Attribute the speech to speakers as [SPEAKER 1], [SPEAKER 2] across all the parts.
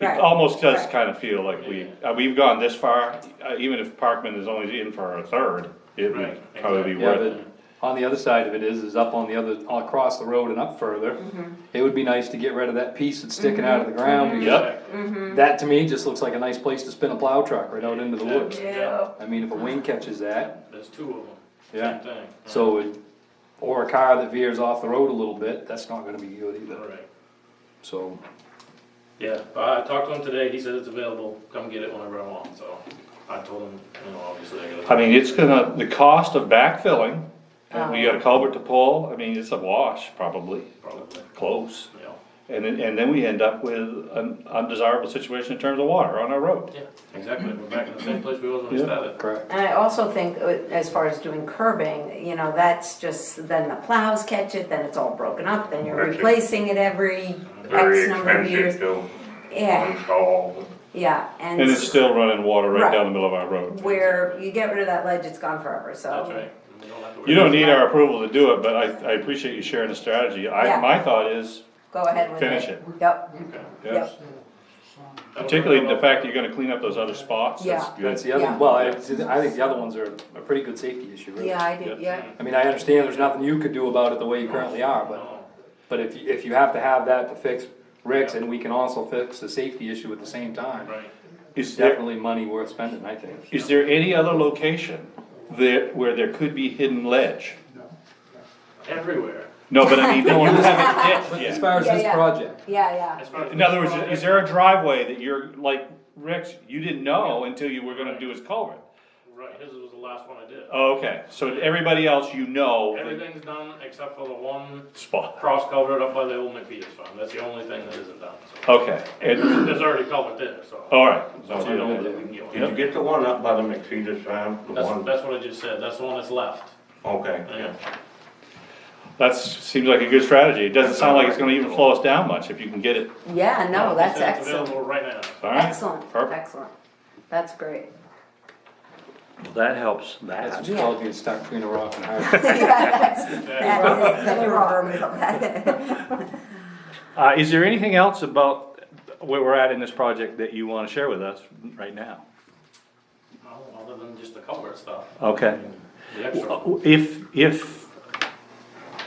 [SPEAKER 1] It
[SPEAKER 2] Right,
[SPEAKER 1] almost does
[SPEAKER 2] right.
[SPEAKER 1] kind of feel like we, uh, we've gone this far, uh, even if Parkman is only in for a third, it would
[SPEAKER 3] Right,
[SPEAKER 1] probably be
[SPEAKER 4] Yeah,
[SPEAKER 1] worth it.
[SPEAKER 4] but on the other side of it is, is up on the other, across the road and up further. It would be nice to get rid of that piece that's sticking out of the
[SPEAKER 3] Mm-hmm.
[SPEAKER 4] ground. because
[SPEAKER 1] Yep,
[SPEAKER 4] That to me just looks like a nice place to spin a plow truck right out into the woods.
[SPEAKER 2] Yeah.
[SPEAKER 4] I mean, if a wing catches that,
[SPEAKER 3] There's two of them.
[SPEAKER 4] Yeah.
[SPEAKER 3] Same thing.
[SPEAKER 4] so, it- or a car that veers off the road a little bit, that's not gonna be good either,
[SPEAKER 3] Right.
[SPEAKER 4] so.
[SPEAKER 3] Yeah, I talked to him today, he said it's available, come get it whenever I want, so I told him, you know, obviously I gotta.
[SPEAKER 1] I mean, it's gonna, the cost of backfilling, uh, we got
[SPEAKER 2] Uh-huh.
[SPEAKER 1] a culvert to pull, I mean, it's a wash probably,
[SPEAKER 3] Probably,
[SPEAKER 1] close.
[SPEAKER 3] you know,
[SPEAKER 1] And then, and then we end up with an undesirable situation in terms of water on our road.
[SPEAKER 3] yeah, exactly, we're back in the same place we was when we
[SPEAKER 1] Yeah.
[SPEAKER 3] started.
[SPEAKER 4] Correct.
[SPEAKER 2] And I also think, uh, as far as doing curbing, you know, that's just, then the plows catch it, then it's all broken up, then you're
[SPEAKER 5] That's it.
[SPEAKER 2] replacing it every
[SPEAKER 5] Very
[SPEAKER 2] X number of years.
[SPEAKER 5] expensive to
[SPEAKER 2] Yeah,
[SPEAKER 5] install.
[SPEAKER 2] yeah, and.
[SPEAKER 1] And it's still running water right
[SPEAKER 2] Right.
[SPEAKER 1] down the middle of our road.
[SPEAKER 2] Where you get rid of that ledge, it's gone forever, so.
[SPEAKER 3] That's right. and we have to worry
[SPEAKER 1] You don't
[SPEAKER 3] about it.
[SPEAKER 1] need our approval to do it, but I, I appreciate you sharing the strategy. I,
[SPEAKER 2] Yeah.
[SPEAKER 1] my thought is,
[SPEAKER 2] Go ahead with it.
[SPEAKER 1] Finish it.
[SPEAKER 2] Yep,
[SPEAKER 3] Okay.
[SPEAKER 1] yes,
[SPEAKER 3] That'll work
[SPEAKER 1] particularly
[SPEAKER 3] out.
[SPEAKER 1] the fact that you're gonna clean up those other spots, that's
[SPEAKER 2] Yeah.
[SPEAKER 1] good.
[SPEAKER 4] That's the other,
[SPEAKER 2] Yeah.
[SPEAKER 4] well, I, I think the other ones are a pretty good safety issue, really.
[SPEAKER 2] yeah, I did,
[SPEAKER 1] Yeah.
[SPEAKER 2] yeah.
[SPEAKER 4] I mean, I understand there's nothing you could do about it the way you currently are, but,
[SPEAKER 3] No,
[SPEAKER 4] but if, you- if you have to have that to fix Rick's, and we can also fix the safety issue at the same time,
[SPEAKER 3] Right,
[SPEAKER 1] Is there,
[SPEAKER 4] definitely money worth spending, I think.
[SPEAKER 1] is there any other location there, where there could be hidden ledge?
[SPEAKER 3] everywhere.
[SPEAKER 1] No, but I mean, that you haven't
[SPEAKER 4] But
[SPEAKER 1] hit
[SPEAKER 4] as
[SPEAKER 1] yet.
[SPEAKER 4] far as
[SPEAKER 2] Yeah,
[SPEAKER 4] this
[SPEAKER 2] yeah.
[SPEAKER 4] project,
[SPEAKER 2] Yeah, yeah,
[SPEAKER 3] As far as
[SPEAKER 1] In other words,
[SPEAKER 3] this
[SPEAKER 1] is there a driveway that you're, like, Rick's, you didn't know until you were gonna do his culvert?
[SPEAKER 3] project- Right, his was the last one I did.
[SPEAKER 1] Oh, okay, so everybody else you know, the
[SPEAKER 3] Everything's done except for the one
[SPEAKER 1] spot,
[SPEAKER 3] cross culvert up by the old McPeter's farm, that's the only thing that isn't done, so.
[SPEAKER 1] okay, and,
[SPEAKER 3] There's already culvert there, so.
[SPEAKER 1] alright.
[SPEAKER 4] Oh,
[SPEAKER 3] I know
[SPEAKER 4] yeah.
[SPEAKER 3] that we can get one.
[SPEAKER 5] Did you get the one up by the McFeeters farm? The
[SPEAKER 3] That's,
[SPEAKER 5] one,
[SPEAKER 3] that's what I just said, that's the one that's left.
[SPEAKER 5] okay,
[SPEAKER 3] Yeah.
[SPEAKER 1] That seems like a good strategy, it doesn't sound like it's gonna even slow us down much if you can get it,
[SPEAKER 2] yeah, no, that's
[SPEAKER 3] He said it's
[SPEAKER 2] excellent,
[SPEAKER 3] Available right now.
[SPEAKER 1] alright?
[SPEAKER 2] excellent,
[SPEAKER 1] Perfect,
[SPEAKER 2] excellent, that's great.
[SPEAKER 6] That helps
[SPEAKER 4] that's
[SPEAKER 6] that.
[SPEAKER 4] what you all get stuck between a rock and a hard place.
[SPEAKER 2] Yeah, that's, that is the problem.
[SPEAKER 1] uh, is there anything else about where we're at in this project that you wanna share with us right now?
[SPEAKER 3] No, Other than just the culvert stuff,
[SPEAKER 1] Okay. Uh,
[SPEAKER 3] the extra.
[SPEAKER 1] If, if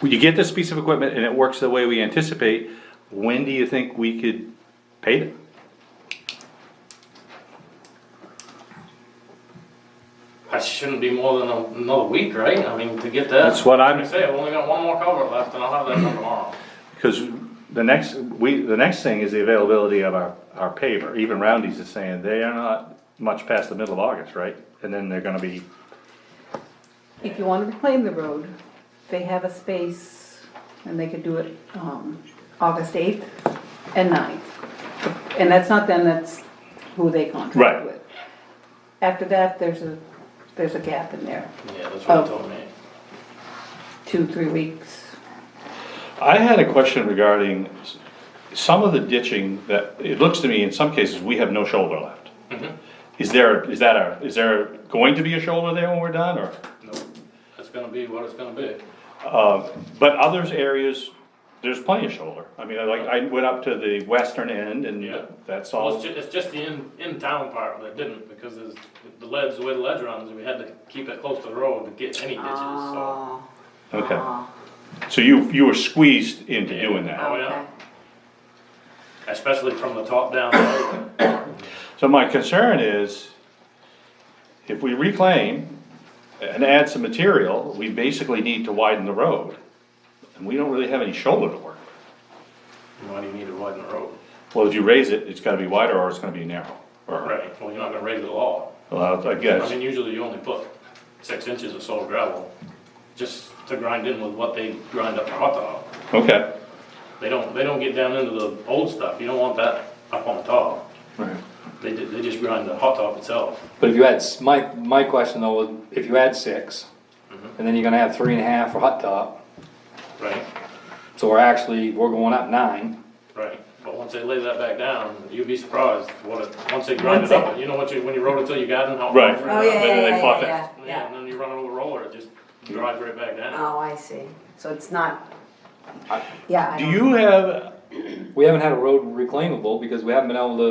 [SPEAKER 1] you get this piece of equipment and it works the way we anticipate, when do you think we could pay it?
[SPEAKER 3] That shouldn't be more than a- another week, right? I mean, to get that.
[SPEAKER 1] That's what I'm-
[SPEAKER 3] Like I say, I've only got one more culvert left and I'll have that done tomorrow.
[SPEAKER 1] Because the next, we, the next thing is the availability of our, our paver. Even Roundy's is saying they are not much past the middle of August, right? And then they're gonna be,
[SPEAKER 7] If you wanna reclaim the road, they have a space, and they could do it, um, August eighth and 9th. And that's not them, that's who they
[SPEAKER 1] Right.
[SPEAKER 7] contract with. After that, there's a, there's a gap in there,
[SPEAKER 3] Yeah, that's what
[SPEAKER 7] Oh.
[SPEAKER 3] he told me.
[SPEAKER 7] two, three weeks.
[SPEAKER 1] I had a question regarding s- some of the ditching that, it looks to me in some cases, we have no shoulder left.
[SPEAKER 3] Mm-hmm.
[SPEAKER 1] Is there, is that a, is there going to be a shoulder there when we're done or?
[SPEAKER 3] No, That's gonna be what it's gonna be.
[SPEAKER 1] Uh, but others areas, there's plenty of shoulder. I mean, I like, I went up to the western end
[SPEAKER 3] Yeah.
[SPEAKER 1] and that's
[SPEAKER 3] Well, it's
[SPEAKER 1] all.
[SPEAKER 3] ju- it's just the in, in-town part that didn't, because there's, the ledge, the way the ledge runs, we had to keep it close to the road to get any ditches, so.
[SPEAKER 2] Oh,
[SPEAKER 1] Okay,
[SPEAKER 2] oh,
[SPEAKER 1] so you, you were squeezed into doing that.
[SPEAKER 3] Oh, yeah.
[SPEAKER 2] okay.
[SPEAKER 3] Especially from the top down.
[SPEAKER 1] So my concern is, if we reclaim and add some material, we basically need to widen the road. And we don't really have any shoulder to work. with.
[SPEAKER 3] Why do you need to widen the road?
[SPEAKER 1] Well, if you raise it, it's gotta be wider or it's gonna be narrow. Or,
[SPEAKER 3] Right, well, you're not gonna raise it at all.
[SPEAKER 1] well, I
[SPEAKER 3] I
[SPEAKER 1] guess,
[SPEAKER 3] mean, usually you only put six inches of solid gravel, just to grind in with what they grind up for hot dog.
[SPEAKER 1] okay.
[SPEAKER 3] They don't, they don't get down into the old stuff, you don't want that up on top. They, ju- they just grind the hot dog itself.
[SPEAKER 4] But if you add, s- my, my question though, was if you add six, and then you're gonna have three and a half for hot top,
[SPEAKER 3] Right,
[SPEAKER 4] so we're actually, we're going up nine.
[SPEAKER 3] right. But once they lay that back down, you'd be surprised what it, once they grind it up, you know what you, when you rolled it till you got in, how.
[SPEAKER 1] Right.
[SPEAKER 2] Oh, yeah,
[SPEAKER 1] Then
[SPEAKER 2] yeah,
[SPEAKER 1] they
[SPEAKER 2] yeah,
[SPEAKER 1] fluff it.
[SPEAKER 2] yeah, yeah,
[SPEAKER 3] Yeah, and
[SPEAKER 2] yeah.
[SPEAKER 3] then you run over a roller, it just drives right back down.
[SPEAKER 2] Oh, I see, so it's not, yeah. I
[SPEAKER 1] Do
[SPEAKER 2] don't-
[SPEAKER 1] you have
[SPEAKER 4] We haven't had a road reclaimable because we haven't been able to